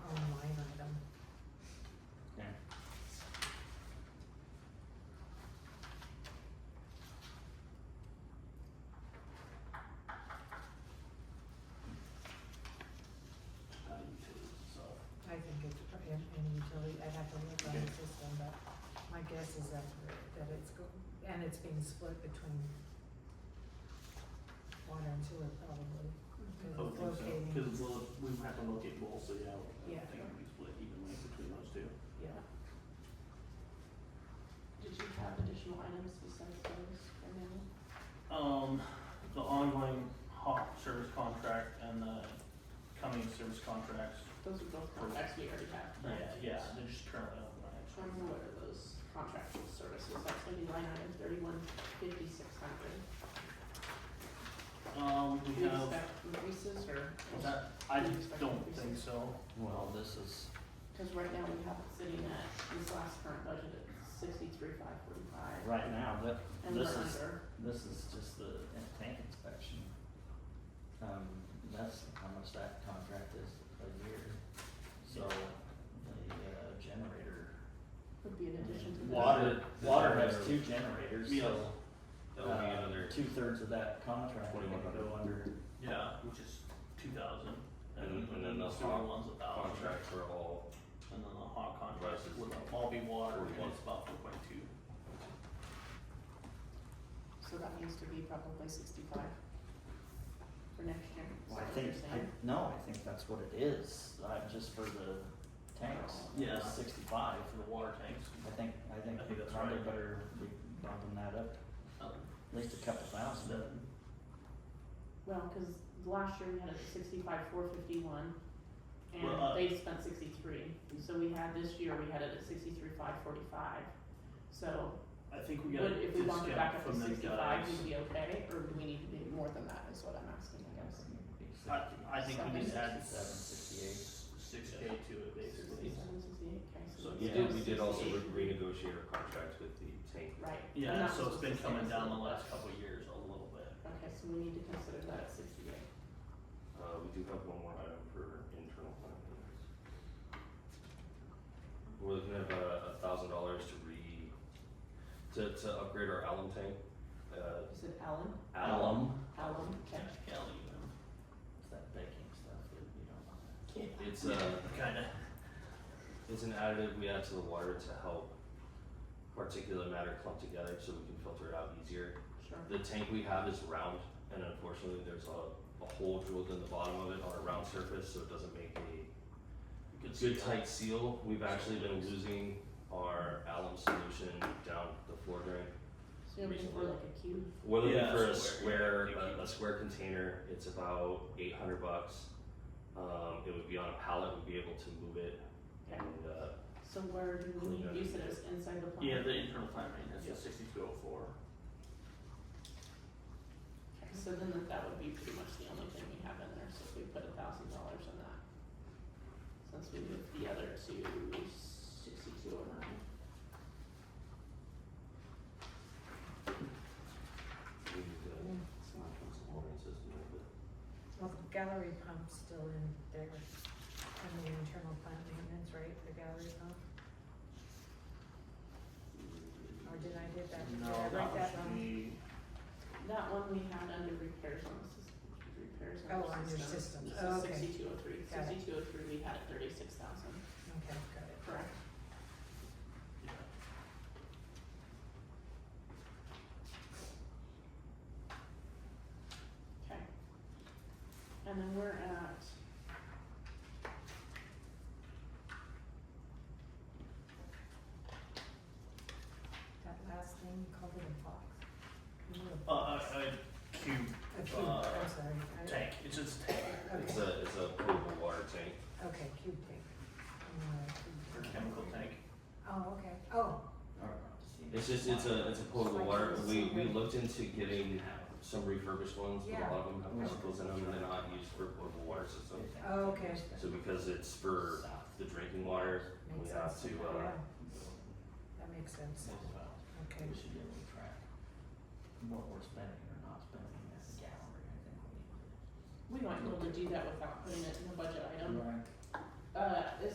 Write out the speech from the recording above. in, in utility, I'd have to look on the Okay. system, but my guess is that, that it's go, and it's being split between water and sewer probably. 'cause I would think so, locating- cause we'll, we would have to locate both, so yeah, I Yeah. would think it'd be split evenly between those two. Yeah, Did you have additional items besides those for now? Um, the ongoing hot service contract and the coming service contracts, Those are both contracts we already have, yeah, correct? yeah, they're just currently on the line. Trying to what are those contractual services, that's gonna be line item thirty-one fifty-six hundred. Um, Do we you have, expect increases or? that, I do you expect don't increases? think so, Well, this is, Cause right now we have it sitting at, this last current budget at sixty-three five forty-five. right now, that, And we're this is, under, this is just the tank inspection. Um, that's how much that contract is a year, so the uh, generator. would be an addition to that. Water, The water has two generator. generators, Yeah. so, That would be uh, another, two thirds of that contract would go under, yeah, which is two thousand. And- and then the sewer hot one's a thousand. contracts are all, And then the hot contracts Prices. would all be water, and Forty-one. it's about four point two. So that needs to be probably sixty-five for next year. Is well, that I what think, you're I, saying? no, I think that's what it is, uh, just for the tanks, Yeah. it's sixty-five. For the water tanks, I think, I think I we think that's probably right. better be bumping that up um, at least a couple thousand, then Well, cause last year we had it at sixty-five, four fifty-one, and Well, uh, they spent sixty-three, so we had, this year we had it at sixty-three, five forty-five. So, I think we gotta would, if we bumped it back discount up to from the guys. sixty-five, we'd be okay, or do we need to be more than that, is what I'm asking, I guess. I, I think we need to add Seven, sixty-eight. s- Six K to it basically. Sixty-seven, sixty-eight, okay, So so. let's we Yeah. do did, we did also 68. re- renegotiate our contracts with the tank. Right. and Yeah, that so was it's been the coming same down the as last last. couple of years a little bit. Okay, so we need to consider that at sixty-eight. Uh, we do have one more item for internal planning. We're looking at about a thousand dollars to re, to, to upgrade our alum tank, uh, Is it Allen? Alum, Allen, okay. Cash Kelly, it's that baking stuff that you don't want. It's uh, Kinda. it's an additive we add to the water to help particulate matter clump together so we can filter it out easier. Sure. The tank we have is round, and unfortunately, there's a, a hole drilled in the bottom of it on a round surface, so it doesn't make a You could see good that. tight seal. We've actually been losing our alum solution down the floor drain. So you're looking for like a cube? We're looking Yeah, for a square, square, yeah, thank a, you. a square container. It's about eight hundred bucks. Um, it would be on a pallet. We'd be able to move it Okay. and uh, So where do we need to use it as inside the plant? Yeah, the internal plant maintenance Yeah. is sixty-two oh four. Okay, So then that- that would be pretty much the only thing we have in there, so if we put a thousand dollars in that. Since we moved the other to sixty-two oh nine. we need to It's not from some ordering system, but well, the gallery pump's still in there, and the internal plant maintenance, right, the gallery pump, or did I did that, did No, I write that that wrong? would be, That one we had under repairs on the system, repairs on Oh, the system. on your system, This oh, is okay, sixty-two oh three, Got it. sixty-two oh three, we had it thirty-six thousand, okay, got it. correct? yeah. Okay. And then we're at. That last thing, you called it a box? You know, a Uh, box. a, a cube, A cube, uh, I'm sorry, I- tank, it's just a tank it's okay, a, it's a potable water tank. okay, cube tank. Mm, a cube or tank. chemical tank. Oh, okay, oh, It's just, it's a, it's a potable water, we, we looked into getting some refurbished ones, but a lot of them have chemicals in them and they're not used for potable water systems. Oh, okay. So because it's for the drinking water, we Makes have to, sense. uh, Yeah. That makes sense, okay. We should be able to track what we're spending or not spending at the gallery, I think we need to. We might be able to do that without putting it in the budget item. Uh, is